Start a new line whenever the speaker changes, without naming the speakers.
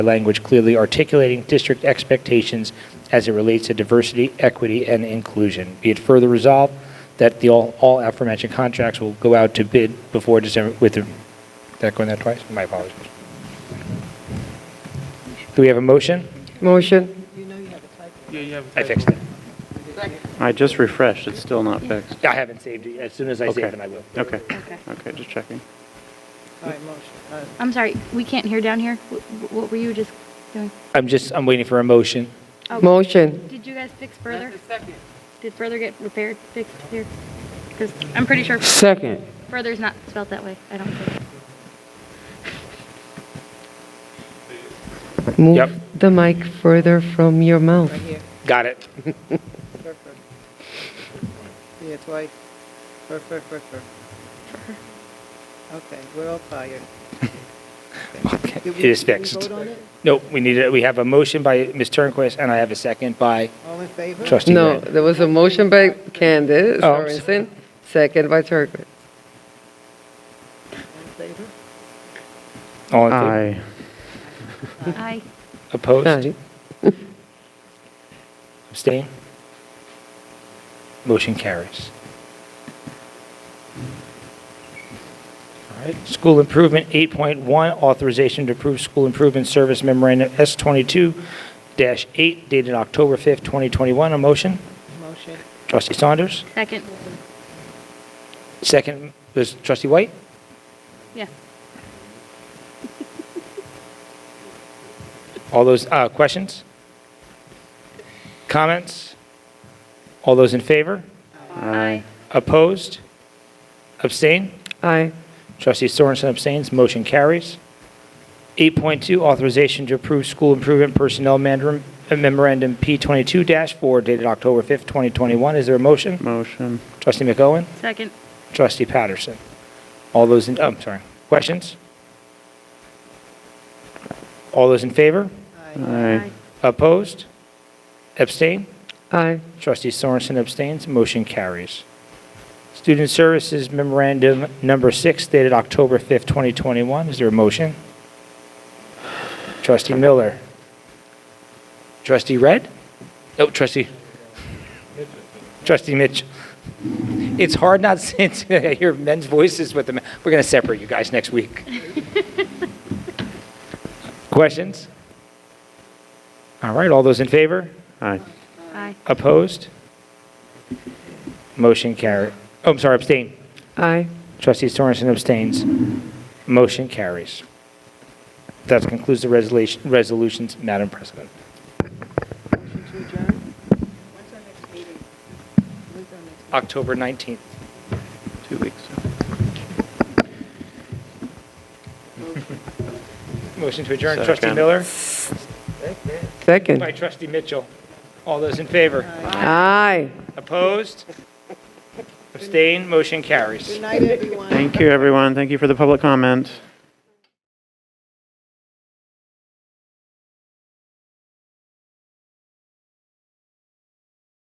language clearly articulating district expectations as it relates to diversity, equity, and inclusion. Be it further resolved that the all all aforementioned contracts will go out to bid before December, with, the- did that go in there twice? My apologies. Do we have a motion?
Motion.
I fixed it.
I just refreshed, it's still not fixed.
I haven't saved it. As soon as I
Okay.
save it, I will.
Okay, okay, just checking.
I'm sorry, we can't hear down here. Wh- wh- What were you just doing?
I'm just, I'm waiting for a motion.
Oh,
Motion.
Did you guys fix further? Did further get repaired, fixed here? Because I'm pretty sure
Second.
further's not spelled that way, I don't think.
Yep.
Move the mic further from your mouth.
Got it.
Perfect. Yeah, twice. Perfect, perfect. Okay, we're all tired.
Okay. It
Did we-
is
did we
fixed.
vote on it?
Nope, we need, it. we have a motion by Ms. Turnquist, and I have a second by
All in favor?
trustee
No,
Rand.
there was a motion by Candace
Oh, I'm
Sorensen, second by Turkett.
All in favor?
All in favor?
Aye.
Aye.
Opposed?
Aye.
Abstain? Motion carries. All right, school improvement 8.1, authorization to approve school improvement service memorandum S22-8 dated October 5th, 2021. A motion?
Motion.
Trustee Saunders?
Second,
Second was trustee White?
yeah.
All those, uh, questions? Comments? All those in favor?
Aye.
Opposed? Abstain?
Aye.
Trustee Sorensen abstains. Motion carries. 8.2, authorization to approve school improvement personnel mandar- memorandum P22-4 dated October 5th, 2021. Is there a motion?
Motion.
Trustee McOwen?
Second,
Trustee Patterson? All those in, oh, I'm sorry. Questions? All those in favor?
Aye.
Aye.
Opposed? Abstain?
Aye.
Trustee Sorensen abstains. Motion carries. Student Services Memorandum Number Six dated October 5th, 2021. Is there a motion? Trustee Miller. Trustee Red? Oh, trustee. Trustee Mitch. It's hard not since I hear men's voices with them. We're going to separate you guys next week. Questions? All right, all those in favor?
Aye.
aye.
Opposed? Motion carried. Oh, I'm sorry, abstain.
Aye.
Trustee Sorensen abstains. Motion carries. That concludes the resolution- resolutions, Madam President.
Motion to adjourn? When's our next meeting? When's our next meeting?
October 19th.
Two weeks.
Motion to adjourn, trustee
Second.
Miller, by
Second.
trustee Mitchell. All those in favor?
Aye.
Opposed? Abstain, motion carries.
Good night, everyone.
Thank you, everyone. Thank you for the public comment.